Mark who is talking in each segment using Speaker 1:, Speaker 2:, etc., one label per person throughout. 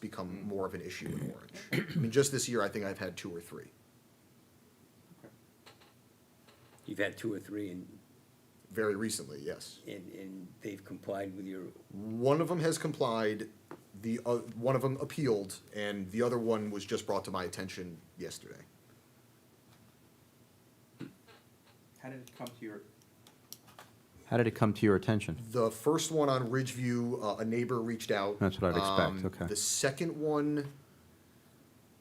Speaker 1: become
Speaker 2: Mm-hmm.
Speaker 1: more of an issue in Orange. I mean, just this year, I think I've had two or three,
Speaker 2: You've had two or three and,
Speaker 1: very recently, yes.
Speaker 2: and, and they've complied with your,
Speaker 1: One of them has complied, the, o- one of them appealed, and the other one was just brought to my attention yesterday.
Speaker 3: How did it come to your,
Speaker 4: How did it come to your attention?
Speaker 1: The first one on Ridgeview, uh, a neighbor reached out.
Speaker 4: That's what I'd expect,
Speaker 1: Um,
Speaker 4: okay.
Speaker 1: The second one,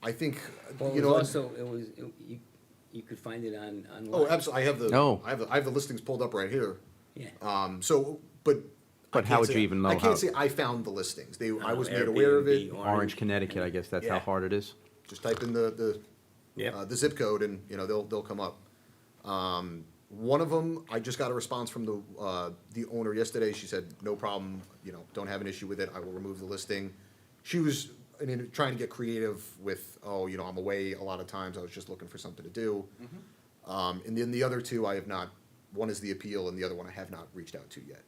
Speaker 1: I think,
Speaker 2: well,
Speaker 1: you
Speaker 2: it was
Speaker 1: know.
Speaker 2: also, it was, it- you, you could find it on, online.
Speaker 1: Oh, absolutely, I have the.
Speaker 4: No.
Speaker 1: I have, the- I have the listings pulled up right here.
Speaker 2: Yeah,
Speaker 1: Um, so, but. I
Speaker 4: But how
Speaker 1: can't
Speaker 4: would
Speaker 1: say-
Speaker 4: you even know
Speaker 1: I
Speaker 4: how-
Speaker 1: can't say I found the listings. They, I
Speaker 2: Uh,
Speaker 1: was made aware of it.
Speaker 2: Airbnb,
Speaker 4: Orange, Connecticut, I guess that's how
Speaker 1: Yeah.
Speaker 4: hard it is.
Speaker 1: Just type in the, the,
Speaker 2: Yep.
Speaker 1: uh, the zip code and, you know, they'll, they'll come up. Um, one of them, I just got a response from the, uh, the owner yesterday. She said, no problem, you know, don't have an issue with it. I will remove the listing. She was, I mean, trying to get creative with, oh, you know, I'm away a lot of times. I was just looking for something to do. Um, and then the other two, I have not, one is the appeal and the other one I have not reached out to yet.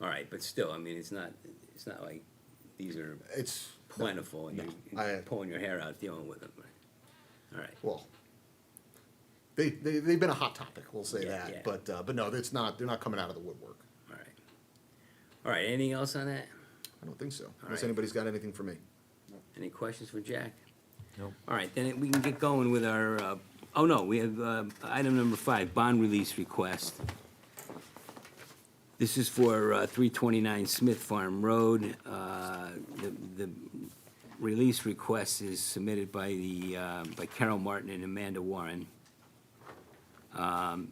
Speaker 2: All right, but still, I mean, it's not, it's not like these are
Speaker 1: It's,
Speaker 2: plentiful and you're
Speaker 1: No, I-
Speaker 2: you're pulling your hair out dealing with them. All right,
Speaker 1: well, they, they, they've been a hot topic, we'll say
Speaker 2: Yeah,
Speaker 1: that.
Speaker 2: yeah.
Speaker 1: But, uh, but no, it's not, they're not coming out of the woodwork.
Speaker 2: all right. All right, anything else on that?
Speaker 1: I don't think so, unless
Speaker 2: right.
Speaker 1: anybody's got anything for me.
Speaker 2: Any questions for Jack? No. All right, then we can get going with our, uh, oh, no, we have uh, item number five, bond release request. This is for uh, 329 Smith Farm Road. Uh, The the release request is submitted by the, uh, by Carol Martin and Amanda Warren. Um,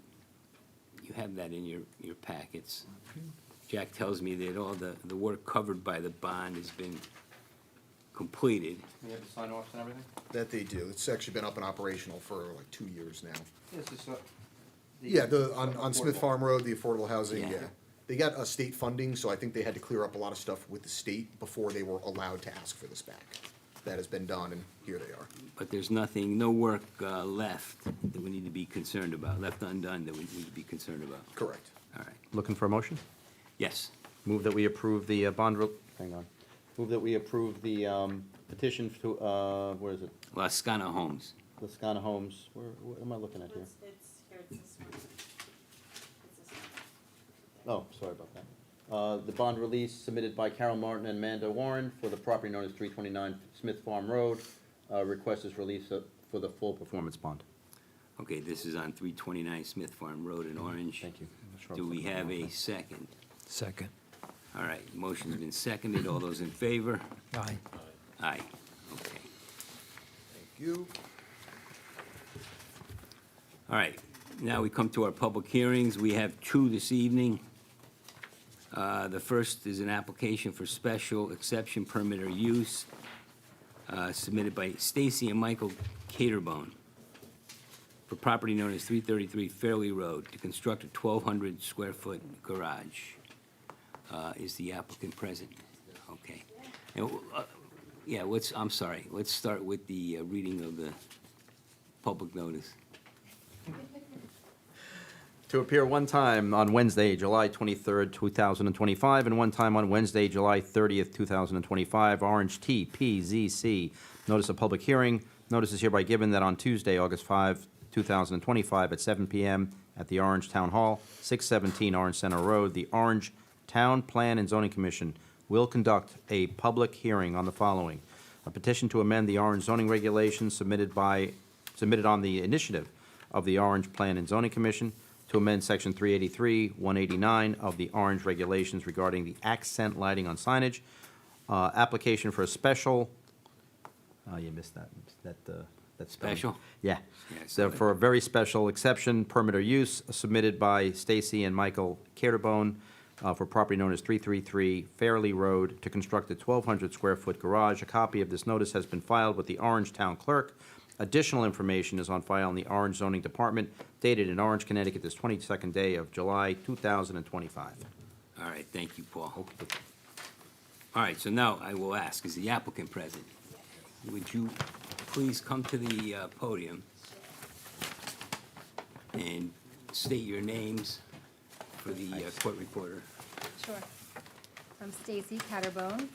Speaker 2: You have that in your, your packets. Jack tells me that all the, the work covered by the bond has been completed.
Speaker 3: we have the sign offs and everything?
Speaker 1: That they do. It's actually been up and operational for like two years now.
Speaker 3: Yes, it's, uh. the-
Speaker 1: Yeah, the, on, on Smith
Speaker 3: affordable.
Speaker 1: Farm Road, the affordable housing,
Speaker 2: Yeah.
Speaker 1: yeah. They got a state funding, so I think they had to clear up a lot of stuff with the state before they were allowed to ask for this back. That has been done, and here they are.
Speaker 2: but there's nothing, no work uh, left that we need to be concerned about, left undone that we need to be concerned about.
Speaker 1: Correct.
Speaker 2: All right,
Speaker 4: Looking for a motion?
Speaker 2: yes,
Speaker 4: Move that we approve the uh, bond, re- hang on. Move that we approve the um, petition to, uh, where is it?
Speaker 2: Lascano Homes.
Speaker 4: Lascana Homes, where, what am I looking at here?
Speaker 5: It's, it's here, it's this one. It's this one.
Speaker 4: Oh, sorry about that. Uh, The bond release submitted by Carol Martin and Amanda Warren for the property known as 329 Smith Farm Road. Uh, Request is release of- for the full performance bond.
Speaker 2: Okay, this is on three twenty-nine Smith Farm Road in Orange.
Speaker 4: Thank you. I'm sure I'm
Speaker 2: Do we
Speaker 4: looking at
Speaker 2: have
Speaker 4: the wrong
Speaker 2: a
Speaker 4: thing.
Speaker 2: second?
Speaker 6: Second.
Speaker 2: All right, motion's been seconded, all those in favor?
Speaker 6: Aye.
Speaker 2: Aye, okay.
Speaker 1: Thank you.
Speaker 2: All right, now we come to our public hearings. We have two this evening. Uh, The first is an application for special exception permit or use uh, submitted by Stacy and Michael Caterbone for property known as 333 Fairley Road to construct a 1,200-square-foot garage. Uh, Is the applicant present? Okay. And, uh, Yeah, let's, I'm sorry, let's start with the uh, reading of the public notice.
Speaker 4: To appear one time on Wednesday, July 23rd, 2025, and one time on Wednesday, July 30th, 2025, Orange T P Z C. Notice of public hearing. Notice is hereby given that on Tuesday, August 5, 2025, at 7 PM at the Orange Town Hall, 617 Orange Center Road, the Orange Town Plan and Zoning Commission will conduct a public hearing on the following. A petition to amend the Orange zoning regulations submitted by, submitted on the initiative of the Orange Plan and Zoning Commission to amend Section 383, 189 of the Orange Regulations regarding the accent lighting on signage. Uh, Application for a special, oh, you missed that, that, uh, that spelling.
Speaker 2: Special?
Speaker 4: Yeah.
Speaker 2: Yeah, I saw
Speaker 4: So
Speaker 2: that.
Speaker 4: for a very special exception, permit or use submitted by Stacy and Michael Caterbone uh, for property known as 333 Fairley Road to construct a 1,200-square-foot garage. A copy of this notice has been filed with the Orange Town Clerk. Additional information is on file in the Orange Zoning Department dated in Orange, Connecticut, this 22nd day of July 2025.
Speaker 2: All right, thank you, Paul. All right, so now I will ask, is the applicant present? Would you please come to the uh, podium and state your names for the uh, court reporter?
Speaker 7: Sure. I'm Stacy Catterbone